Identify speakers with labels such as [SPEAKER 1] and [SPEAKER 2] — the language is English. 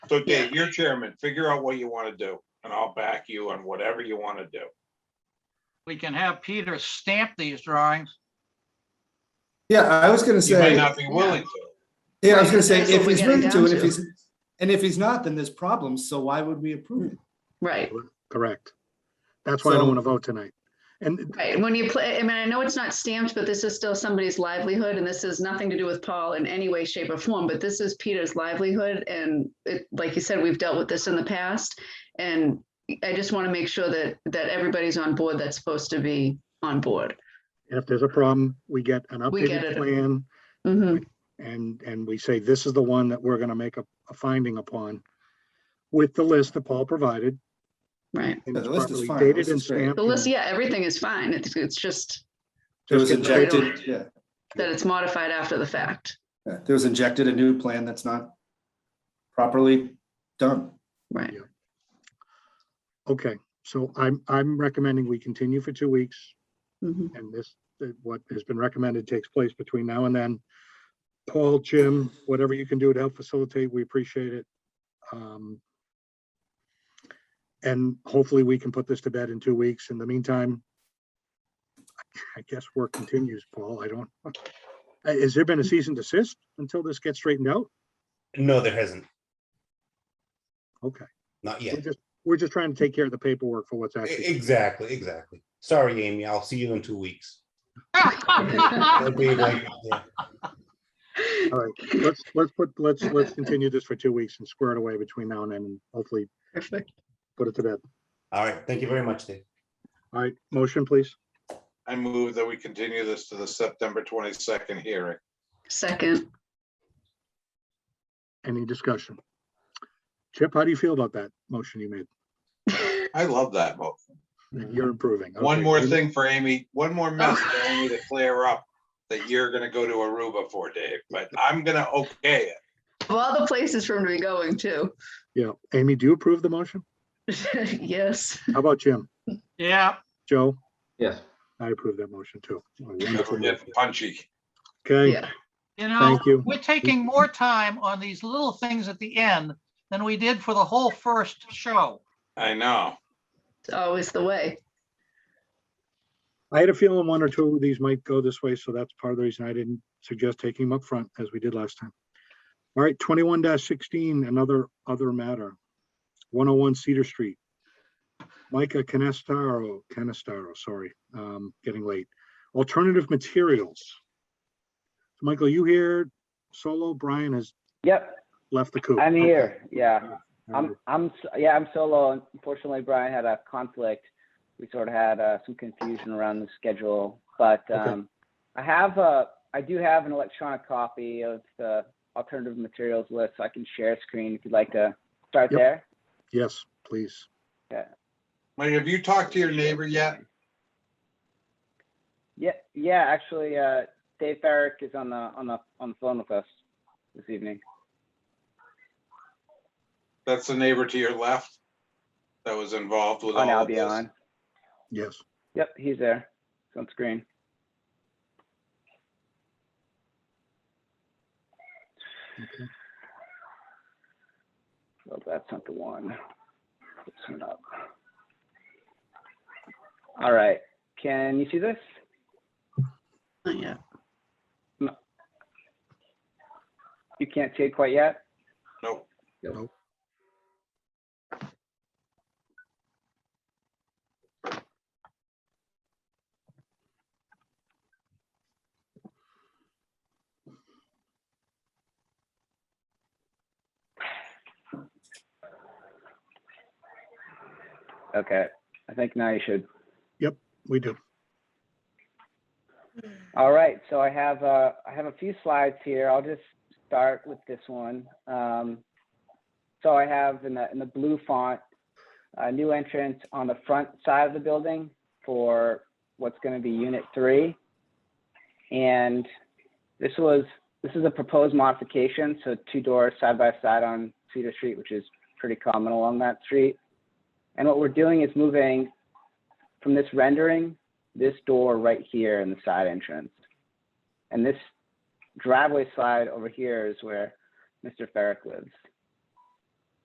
[SPEAKER 1] So Dave, you're chairman, figure out what you want to do and I'll back you on whatever you want to do.
[SPEAKER 2] We can have Peter stamp these drawings.
[SPEAKER 3] Yeah, I was gonna
[SPEAKER 1] You may
[SPEAKER 3] say,
[SPEAKER 1] not be willing to.
[SPEAKER 3] yeah, I was gonna say,
[SPEAKER 4] That's what
[SPEAKER 3] if
[SPEAKER 4] we're
[SPEAKER 3] he's
[SPEAKER 4] getting
[SPEAKER 3] willing to,
[SPEAKER 4] down
[SPEAKER 3] and if
[SPEAKER 4] to.
[SPEAKER 3] he's, and if he's not, then there's problems, so why would we approve it?
[SPEAKER 4] Right,
[SPEAKER 5] Correct. That's why I
[SPEAKER 3] So-
[SPEAKER 5] don't want to vote tonight. And
[SPEAKER 4] right. When you play, I mean, I know it's not stamped, but this is still somebody's livelihood and this has nothing to do with Paul in any way, shape or form, but this is Peter's livelihood. And it, like you said, we've dealt with this in the past. And I just want to make sure that, that everybody's on board that's supposed to be on board.
[SPEAKER 5] if there's a problem, we get an
[SPEAKER 4] We get
[SPEAKER 5] updated
[SPEAKER 4] it.
[SPEAKER 5] plan
[SPEAKER 4] hmm
[SPEAKER 5] and, and we say, this is the one that we're going to make a, a finding upon with the list that Paul provided.
[SPEAKER 4] right.
[SPEAKER 5] and
[SPEAKER 3] Yeah, the
[SPEAKER 5] it's
[SPEAKER 3] list is
[SPEAKER 5] properly
[SPEAKER 3] fine. The
[SPEAKER 5] Dated
[SPEAKER 3] list
[SPEAKER 5] and
[SPEAKER 3] is great.
[SPEAKER 5] stamped.
[SPEAKER 4] The list,
[SPEAKER 5] and
[SPEAKER 4] yeah, everything is fine. It's, it's just
[SPEAKER 3] There was
[SPEAKER 5] just get
[SPEAKER 4] inject-
[SPEAKER 5] the-
[SPEAKER 3] injected, yeah,
[SPEAKER 4] that it's modified after the fact.
[SPEAKER 3] yeah, there was injected a new plan that's not properly done.
[SPEAKER 4] Right.
[SPEAKER 5] Okay, so I'm, I'm recommending we continue for two weeks
[SPEAKER 4] Mhm.
[SPEAKER 5] and this, that what has been recommended takes place between now and then. Paul, Jim, whatever you can do to help facilitate, we appreciate it. Um, And hopefully we can put this to bed in two weeks. In the meantime, I guess work continues, Paul. I don't, Uh, has there been a cease and desist until this gets straightened out?
[SPEAKER 6] No, there hasn't.
[SPEAKER 5] Okay,
[SPEAKER 6] Not
[SPEAKER 5] we're
[SPEAKER 6] yet.
[SPEAKER 5] just, we're just trying to take care of the paperwork for what's
[SPEAKER 6] E-
[SPEAKER 5] actually.
[SPEAKER 6] Exactly, exactly. Sorry, Amy, I'll see you in two weeks. That'd
[SPEAKER 2] All
[SPEAKER 6] be like, yeah.
[SPEAKER 5] Let's, let's put, let's, let's continue this for two weeks and square it away between now and then, and hopefully
[SPEAKER 4] Perfect.
[SPEAKER 5] put it to bed.
[SPEAKER 6] All right, thank you very much, Dave.
[SPEAKER 5] All right, motion, please.
[SPEAKER 1] I move that we continue this to the September twenty-second hearing.
[SPEAKER 4] Second,
[SPEAKER 5] Any discussion? Chip, how do you feel about that motion you made?
[SPEAKER 1] I love that vote.
[SPEAKER 5] You're improving.
[SPEAKER 1] Mm-hmm. One
[SPEAKER 5] Okay,
[SPEAKER 1] more
[SPEAKER 5] you-
[SPEAKER 1] thing for Amy, one more message for Amy to clear up that you're gonna go to Aruba for, Dave, but I'm gonna okay it.
[SPEAKER 4] of all the places for him to be going to,
[SPEAKER 5] Yeah, Amy, do you approve the motion?
[SPEAKER 4] yes.
[SPEAKER 5] How about Jim?
[SPEAKER 2] Yeah,
[SPEAKER 5] Joe?
[SPEAKER 7] Yes.
[SPEAKER 5] I approve that motion too. Oh,
[SPEAKER 1] Never
[SPEAKER 5] wonderful
[SPEAKER 1] get
[SPEAKER 5] motion.
[SPEAKER 1] punchy.
[SPEAKER 5] Okay,
[SPEAKER 4] Yeah.
[SPEAKER 2] you know,
[SPEAKER 5] thank you.
[SPEAKER 2] we're taking more time on these little things at the end than we did for the whole first show.
[SPEAKER 1] I know.
[SPEAKER 4] It's always the way.
[SPEAKER 5] I had a feeling one or two of these might go this way, so that's part of the reason I didn't suggest taking them up front as we did last time. All right, twenty-one sixteen, another other matter. One oh one Cedar Street. Micah Canestaro, Canestaro, sorry, um, getting late. Alternative materials. Michael, you here solo? Brian has
[SPEAKER 7] Yep,
[SPEAKER 5] left the coop.
[SPEAKER 7] I'm
[SPEAKER 5] Oh, Okay.
[SPEAKER 7] here. Yeah,
[SPEAKER 5] All right.
[SPEAKER 7] I'm, I'm, s- yeah, I'm solo. Unfortunately, Brian had a conflict. We sort of had uh, some confusion around the schedule, but
[SPEAKER 5] Okay.
[SPEAKER 7] um, I have a, I do have an electronic copy of the alternative materials list. so I can share screen if you'd like to start
[SPEAKER 5] Yep.
[SPEAKER 7] there.
[SPEAKER 5] Yes, please.
[SPEAKER 1] Wait, have you talked to your neighbor yet?
[SPEAKER 7] Yeah, yeah. Actually, uh, Dave Farrick is on the on the on the phone with us this evening.
[SPEAKER 1] That's the neighbor to your left that was involved with
[SPEAKER 7] On
[SPEAKER 1] all of this.
[SPEAKER 7] Albion.
[SPEAKER 5] Yes.
[SPEAKER 7] Yep, he's there. It's on screen.
[SPEAKER 5] Okay.
[SPEAKER 7] Well, that's not the one. This one up. All right, can you see this?
[SPEAKER 4] Not yet.
[SPEAKER 7] You can't see it quite yet?
[SPEAKER 1] Nope.
[SPEAKER 7] Okay, I think now you should.
[SPEAKER 5] We do.
[SPEAKER 7] All right, so I have, uh, I have a few slides here. I'll just start with this one. Um, so I have in the, in the blue font, a new entrance on the front side of the building for what's gonna be unit three. And this was, this is a proposed modification, so two doors side by side on Cedar Street, which is pretty common along that street. And what we're doing is moving from this rendering this door right here in the side entrance. And this driveway slide over here is where Mr. Ferrick lives.